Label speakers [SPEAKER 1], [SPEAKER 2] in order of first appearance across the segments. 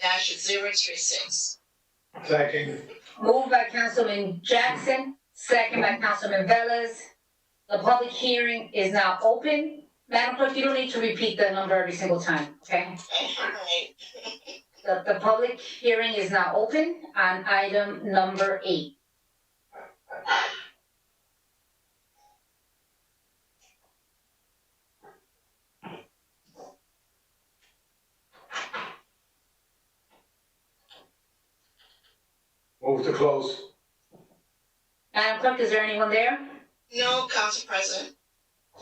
[SPEAKER 1] dash zero three six.
[SPEAKER 2] Second.
[SPEAKER 3] Moved by Councilman Jackson, second by Councilman Velez. The public hearing is now open. Madam Clerk, you don't need to repeat the number every single time, okay?
[SPEAKER 1] Alright,
[SPEAKER 3] The, the public hearing is now open on item number eight.
[SPEAKER 2] Move to close.
[SPEAKER 3] Madam Clerk, is there anyone there?
[SPEAKER 1] no, Council President,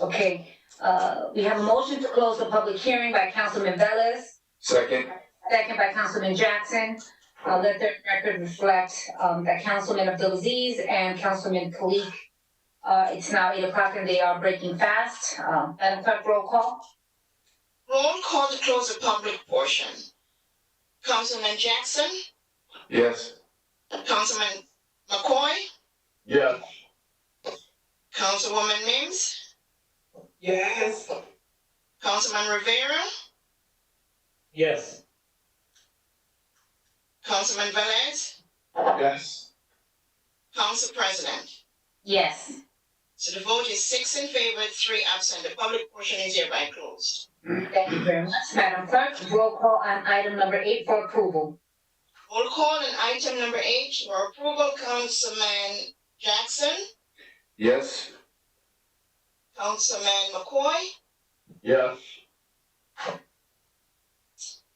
[SPEAKER 3] Okay, uh, we have a motion to close the public hearing by Councilman Velez,
[SPEAKER 2] Second.
[SPEAKER 3] second by Councilman Jackson. Uh, let the record reflect, um, that Councilman Abdulaziz and Councilman Kalik, uh, it's now eight o'clock and they are breaking fast. Um, Madam Clerk, roll call.
[SPEAKER 1] roll call to close the public portion. Councilman Jackson,
[SPEAKER 2] Yes.
[SPEAKER 1] Councilman McCoy,
[SPEAKER 2] Yeah.
[SPEAKER 1] Councilwoman Mims,
[SPEAKER 4] Yes.
[SPEAKER 1] Councilman Rivera,
[SPEAKER 4] Yes.
[SPEAKER 1] Councilman Velez,
[SPEAKER 2] Yes.
[SPEAKER 1] Council President.
[SPEAKER 3] Yes.
[SPEAKER 1] So the vote is six in favor, three absent. The public portion is hereby closed.
[SPEAKER 3] Thank you very much. Madam Clerk, roll call on item number eight for approval.
[SPEAKER 1] Roll call on item number eight for approval, Councilman Jackson,
[SPEAKER 2] Yes.
[SPEAKER 1] Councilman McCoy,
[SPEAKER 2] Yeah.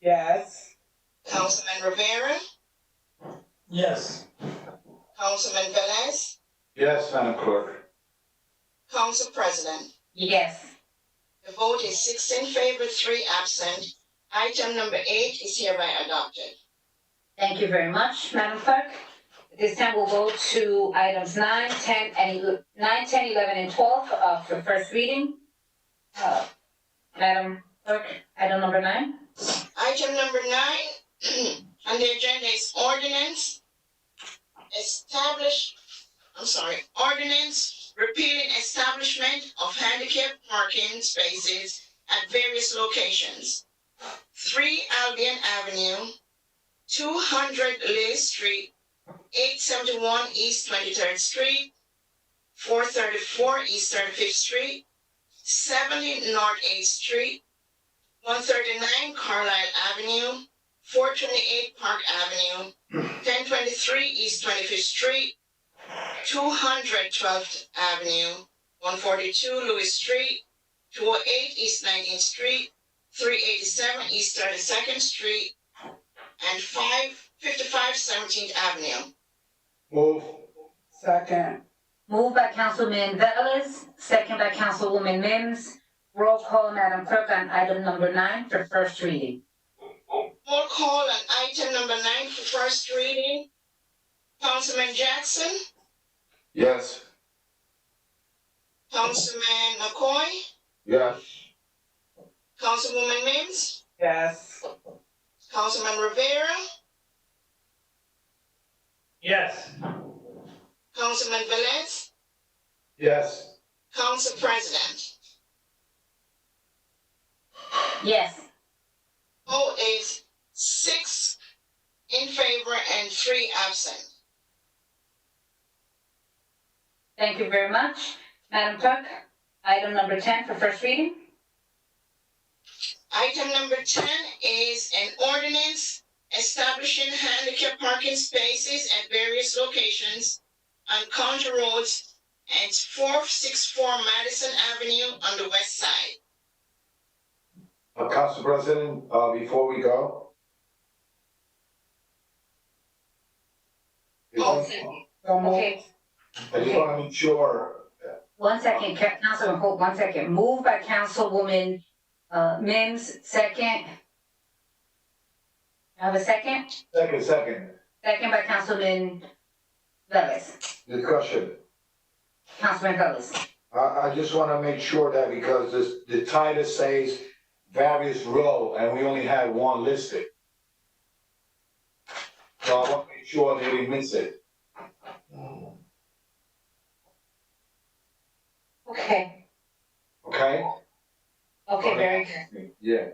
[SPEAKER 4] Yes.
[SPEAKER 1] Councilman Rivera,
[SPEAKER 4] Yes.
[SPEAKER 1] Councilman Velez,
[SPEAKER 2] Yes, Madam Clerk.
[SPEAKER 1] Council President.
[SPEAKER 3] Yes.
[SPEAKER 1] The vote is six in favor, three absent. Item number eight is hereby adopted.
[SPEAKER 3] Thank you very much, Madam Clerk. At This time we'll go to items nine, ten, and ele- nine, ten, eleven, and twelve, uh, for first reading. Uh, Madam Clerk, item number nine.
[SPEAKER 1] Item number nine on the agenda is ordinance establish, I'm sorry, ordinance repealing establishment of handicap parking spaces at various locations. Three Albion Avenue, two hundred Lee Street, eight seventy-one East Twenty-third Street, four thirty-four East Thirty-Fifth Street, seventy North Eighth Street, one thirty-nine Carlisle Avenue, four twenty-eight Park Avenue, ten twenty-three East Twenty-Fifth Street, two hundred Twelfth Avenue, one forty-two Lewis Street, two oh eight East Nineteenth Street, three eighty-seven East Thirty-second Street, and five fifty-five Seventeenth Avenue.
[SPEAKER 2] Move.
[SPEAKER 4] Second.
[SPEAKER 3] Moved by Councilman Velez, second by Councilwoman Mims. Roll call, Madam Clerk, on item number nine for first reading.
[SPEAKER 1] Roll call on item number nine for first reading. Councilman Jackson,
[SPEAKER 2] Yes.
[SPEAKER 1] Councilman McCoy,
[SPEAKER 2] Yeah.
[SPEAKER 1] Councilwoman Mims.
[SPEAKER 4] Yes.
[SPEAKER 1] Councilman Rivera,
[SPEAKER 4] Yes.
[SPEAKER 1] Councilman Velez,
[SPEAKER 2] Yes.
[SPEAKER 1] Council President.
[SPEAKER 3] Yes.
[SPEAKER 1] Vote is six in favor and three absent.
[SPEAKER 3] Thank you very much. Madam Clerk, item number ten for first reading.
[SPEAKER 1] Item number ten is an ordinance establishing handicap parking spaces at various locations on county roads and four six four Madison Avenue on the west side.
[SPEAKER 2] Uh, Council President, uh, before we go.
[SPEAKER 1] Oh.
[SPEAKER 4] So moved.
[SPEAKER 3] Okay,
[SPEAKER 2] I just wanna make sure,
[SPEAKER 3] One second, Ca- Councilman Hope, one second. Moved by Councilwoman, uh, Mims, second. I have a second,
[SPEAKER 2] second, second,
[SPEAKER 3] second by Councilman Velez,
[SPEAKER 2] discussion.
[SPEAKER 3] Councilman Velez.
[SPEAKER 2] I, I just wanna make sure that because this, the title says various row, and we only had one listed. So I wanna make sure that we miss it.
[SPEAKER 4] Mm.
[SPEAKER 3] Okay,
[SPEAKER 2] Okay?
[SPEAKER 3] okay, very good.
[SPEAKER 2] Yeah.